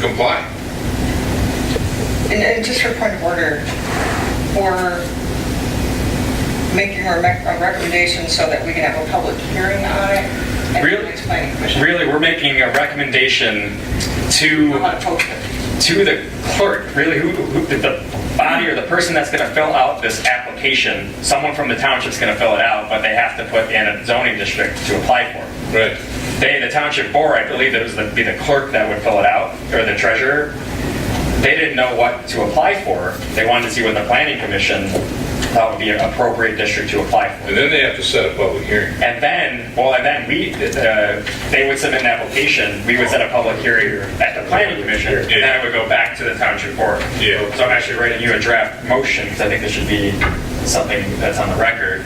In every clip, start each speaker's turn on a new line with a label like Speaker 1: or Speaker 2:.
Speaker 1: comply.
Speaker 2: And- And just for point of order, for making a rec- a recommendation so that we can have a public hearing on it. and
Speaker 3: Really?
Speaker 2: it's planning commission.
Speaker 3: Really, we're making a recommendation
Speaker 2: I'm
Speaker 3: to,
Speaker 2: not opposed to it.
Speaker 3: to the clerk, really, who, who, the body or the person that's gonna fill out this application. Someone from the township's gonna fill it out, but they have to put in a zoning district to apply for. it.
Speaker 1: Right.
Speaker 3: They, the township board, I believe it was the, be the clerk that would fill it out, or the treasurer. They didn't know what to apply for. They wanted to see what the planning commission thought would be an appropriate district to apply for.
Speaker 1: And then they have to set a public hearing.
Speaker 3: And then, well, and then we, uh, they would submit an application, we would set a public hearing at the planning commission, and then it would go back to the township board.
Speaker 1: Yeah.
Speaker 3: So I'm actually writing you a draft motion, because I think this should be something that's on the record.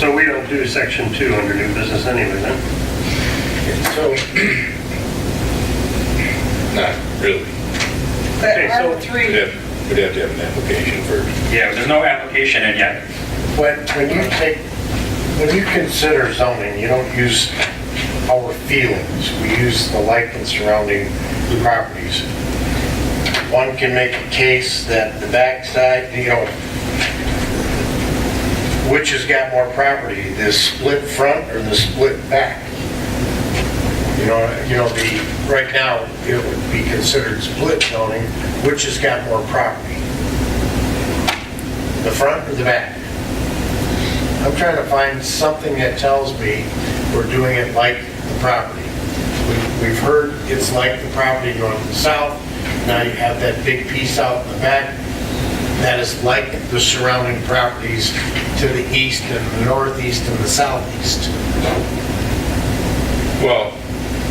Speaker 4: So we don't do section two under new business anyway, then?
Speaker 1: So. Not really.
Speaker 2: But
Speaker 4: Okay, so-
Speaker 2: Article
Speaker 1: We'd
Speaker 2: 3,
Speaker 1: have, we'd have to have an application first.
Speaker 3: Yeah, there's no application in yet.
Speaker 5: When, when you take, when you consider zoning, you don't use our feelings, we use the like and surrounding properties. One can make a case that the backside, you know, which has got more property, the split front or the split back? You know, you know, the, right now, it would be considered split zoning, which has got more property? The front or the back? I'm trying to find something that tells me we're doing it like the property. We- We've heard it's like the property going to the south, now you have that big piece out in the back that is like the surrounding properties to the east and the northeast and the southeast.
Speaker 1: Well,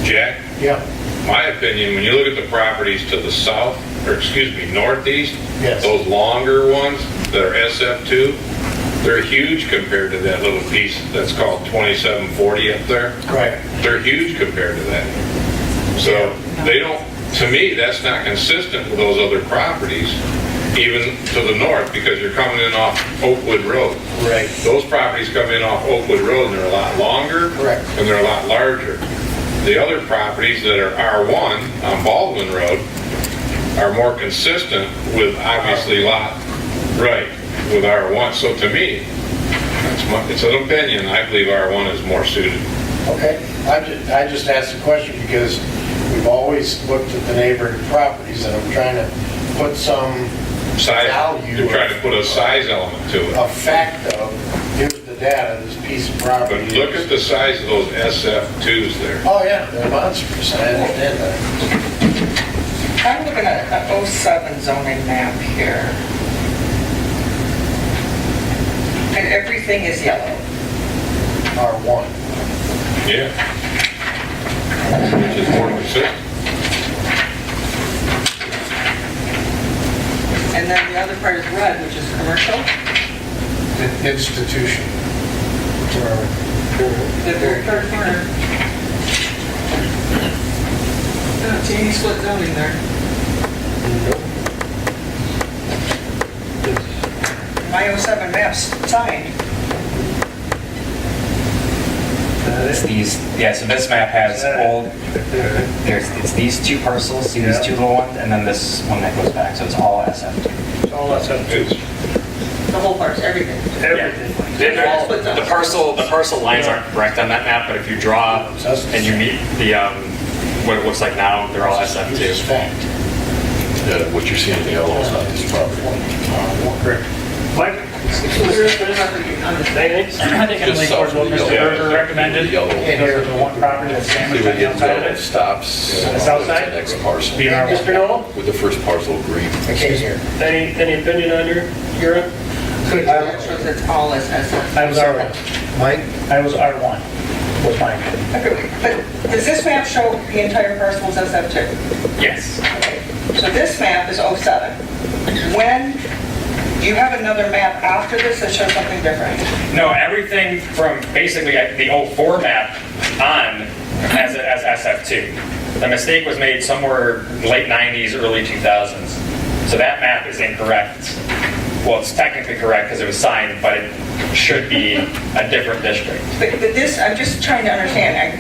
Speaker 1: Jack,
Speaker 5: Yeah,
Speaker 1: my opinion, when you look at the properties to the south, or excuse me, northeast,
Speaker 5: Yes.
Speaker 1: those longer ones that are SF2, they're huge compared to that little piece that's called 2740 up there.
Speaker 5: right.
Speaker 1: They're huge compared to that. So they don't, to me, that's not consistent with those other properties, even to the north, because you're coming in off Oakwood Road.
Speaker 5: Right.
Speaker 1: Those properties come in off Oakwood Road and they're a lot longer.
Speaker 5: Correct.
Speaker 1: And they're a lot larger. The other properties that are R1 on Baldwin Road are more consistent with obviously lot, right, with R1. So to me, that's my, it's an opinion, I believe R1 is more suited.
Speaker 5: Okay, I just, I just asked the question because we've always looked at the neighboring properties and I'm trying to put some
Speaker 1: size,
Speaker 5: Value
Speaker 1: you're
Speaker 5: of-
Speaker 1: trying to put a size element to it.
Speaker 5: a fact of, here's the data, this piece of
Speaker 1: But
Speaker 5: property.
Speaker 1: look at the size of those SF2s there.
Speaker 5: Oh, yeah, they're monsters, I understand that.
Speaker 2: I'm looking at an 07 zoning map here. And everything is yellow.
Speaker 5: R1.
Speaker 1: Yeah. Which is more consistent.
Speaker 2: And then the other part is red, which is commercial.
Speaker 5: In- Institution. Or-
Speaker 2: The very third corner. Oh, Jamie split zoning there. My 07 map's signed.
Speaker 3: It's these, yeah, so this map has old, there's, it's these two parcels, see these two little ones, and then this one that goes back, so it's all SF.
Speaker 4: It's all that's up to
Speaker 1: It's-
Speaker 2: The whole part's everything.
Speaker 4: everything.
Speaker 3: The parcel, the parcel lines aren't correct on that map, but if you draw and you meet the, um, what it looks like now, they're all
Speaker 5: This is
Speaker 3: SF2.
Speaker 5: fact.
Speaker 6: What you're seeing in the yellow is not his property.
Speaker 5: R1.
Speaker 4: What? Anything?
Speaker 7: I think in Lake Forest, what Mr. Berger recommended,
Speaker 6: Yellow.
Speaker 7: those are the one property that's
Speaker 6: See
Speaker 7: damaged
Speaker 6: where
Speaker 7: on
Speaker 6: the
Speaker 7: the outside of
Speaker 6: yellow
Speaker 7: it.
Speaker 6: stops.
Speaker 7: The south side?
Speaker 6: Next parcel.
Speaker 7: Be our-
Speaker 4: Mr. Noel,
Speaker 6: With the first parcel green.
Speaker 5: I came here.
Speaker 4: any, any opinion on your, your, end?
Speaker 2: That shows it's all SF.
Speaker 7: I was R1,
Speaker 5: Mike?
Speaker 7: I was R1, was mine.
Speaker 2: Okay, But does this map show the entire parcel as SF2?
Speaker 3: Yes.
Speaker 2: Okay, So this map is 07. When, do you have another map after this that shows something different?
Speaker 3: No, everything from basically the old 4 map on as, as SF2. The mistake was made somewhere late 90s, early 2000s. So that map is incorrect. Well, it's technically correct because it was signed, but it should be a different district.
Speaker 2: But but this, I'm just trying to understand. I-